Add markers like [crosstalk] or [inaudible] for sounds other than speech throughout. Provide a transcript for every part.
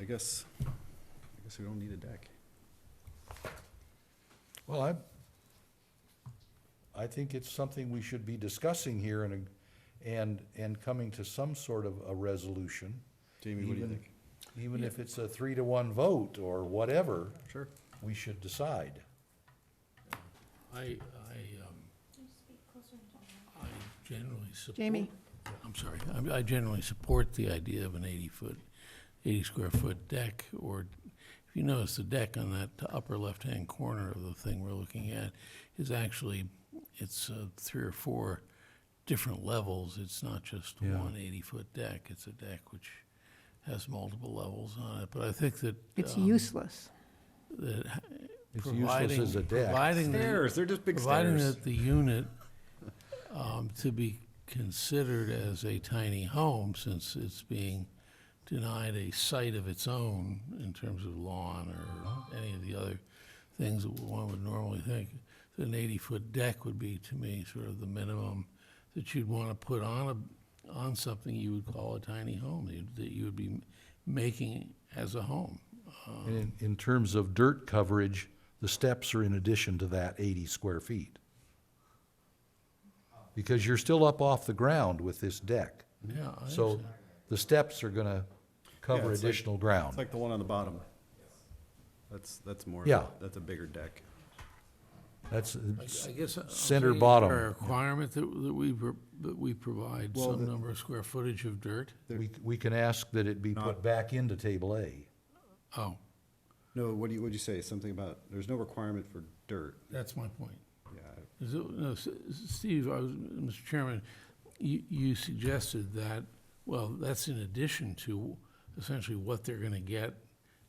I guess, I guess we don't need a deck. Well, I, I think it's something we should be discussing here and, and, and coming to some sort of a resolution. Jamie, what do you even- think? Even if it's a three to one vote or whatever, Sure. we should decide. I, I, um, I generally support. Jamie. I'm sorry, I- I generally support the idea of an eighty-foot, eighty-square-foot deck, or, if you notice, the deck on that upper left-hand corner of the thing we're looking at is actually, it's uh, three or four different levels, it's not just Yeah. one eighty-foot deck, it's a deck which has multiple levels on it, but I think that. It's um, useless. that h- It's providing- useless as a deck. Providing that Stairs, they're just big Providing stairs. that the unit, um, to be considered as a tiny home, since it's being denied a site of its own in terms of lawn or any of the other things that one would normally think, an eighty-foot deck would be, to me, sort of the minimum that you'd want to put on a, on something you would call a tiny home, that you- that you would be making as a home. Um, And In, in terms of dirt coverage, the steps are in addition to that eighty square feet. Because you're still up off the ground with this deck. Yeah, I So understand. the steps are gonna cover it's like- additional It's ground. like the one on the bottom. That's, that's more, of a- Yeah. that's a bigger deck. That's, I guess. Center I'm saying, is bottom. there a requirement that, that we, pro- that we provide Well, some the- number of square footage of dirt? we, we can ask that it be put Not- back into table A. Oh, No, what do you, what'd you say? Something about, there's no requirement for dirt. that's my point. Yeah, Is it, no, S- S- Steve, I was, Mr. Chairman, you, you suggested that, well, that's in addition to essentially what they're gonna get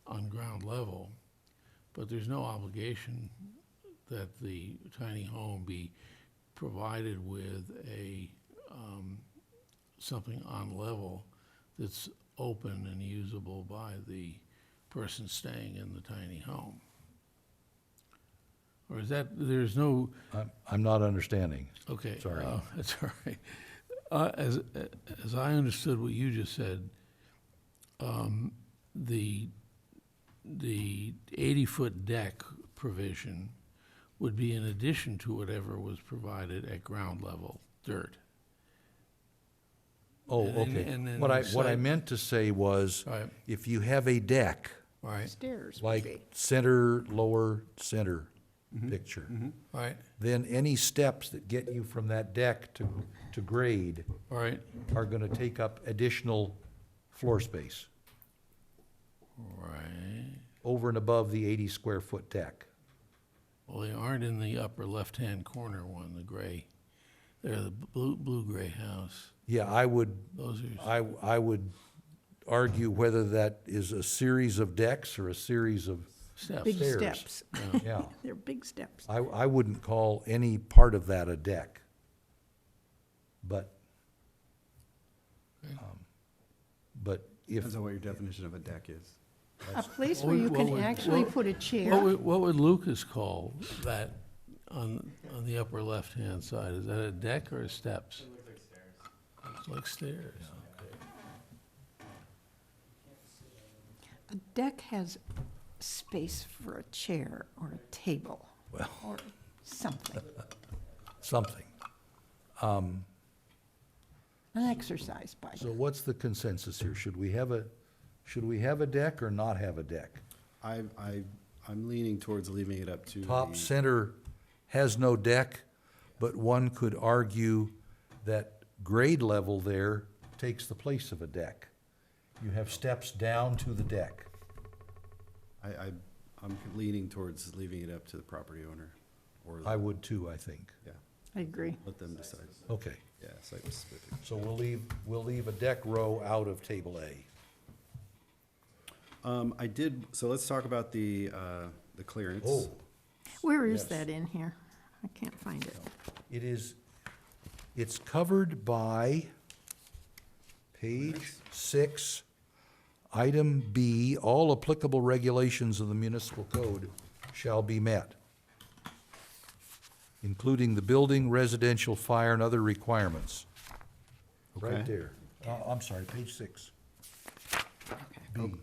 on ground level. But there's no obligation that the tiny home be provided with a, um, something on level that's open and usable by the person staying in the tiny home. Or is that, there's no, I'm, I'm not understanding. Okay. Sorry. uh, [laughs] That's all right. Uh, As, as I understood what you just said, um, the, the 80-foot deck provision would be in addition to whatever was provided at ground level, dirt. Oh, And then- okay. and then What I, the what I site- meant to say was, All right, if you have a deck, all right, Stairs would be. eh, like center, lower, center picture, all right, then any steps that get you from that deck to, to grade all right, are gonna take up additional floor space all right. over and above the eighty square foot deck. Well, they aren't in the upper left-hand corner one, the gray. They're the blue, blue-gray house. Yeah, I would, Those are I, I would argue whether that is a series of decks or a series of, steps. Big Stairs. steps. yeah. [laughs] They're big steps. I, I wouldn't call any part of that a deck. But, Okay. um, but if, depends on what your definition of a deck is. A place What where would- you what can would- actually what- put a What chair. would, what would Lucas call that on, on the upper left-hand side? Is that a deck or steps? It looks like stairs. A deck has space for a chair or a table well, or [laughs] something, something. an exercise bike. So what's the consensus here? Should we have a, should we have a deck or not have a deck? I, I, I'm leaning towards leaving it up to Top the- center has no deck, but one could argue that grade level there takes the place of a deck. You have steps down to the deck. I, I, I'm leaning towards leaving it up to the property owner, or, I would too, I think. yeah, I agree. let them decide. Okay. Yeah, site specific. So we'll leave, we'll leave a deck row out of table A. Um, I did, so let's talk about the, uh, the clearance. Oh, Where is Yes. that in here? I can't find it. it is, it's covered by page Clearance? six, item B, all applicable regulations of the municipal code shall be met, including the building, residential, fire, and other requirements. Right Okay. there. Uh, I'm sorry, page six. Okay. B.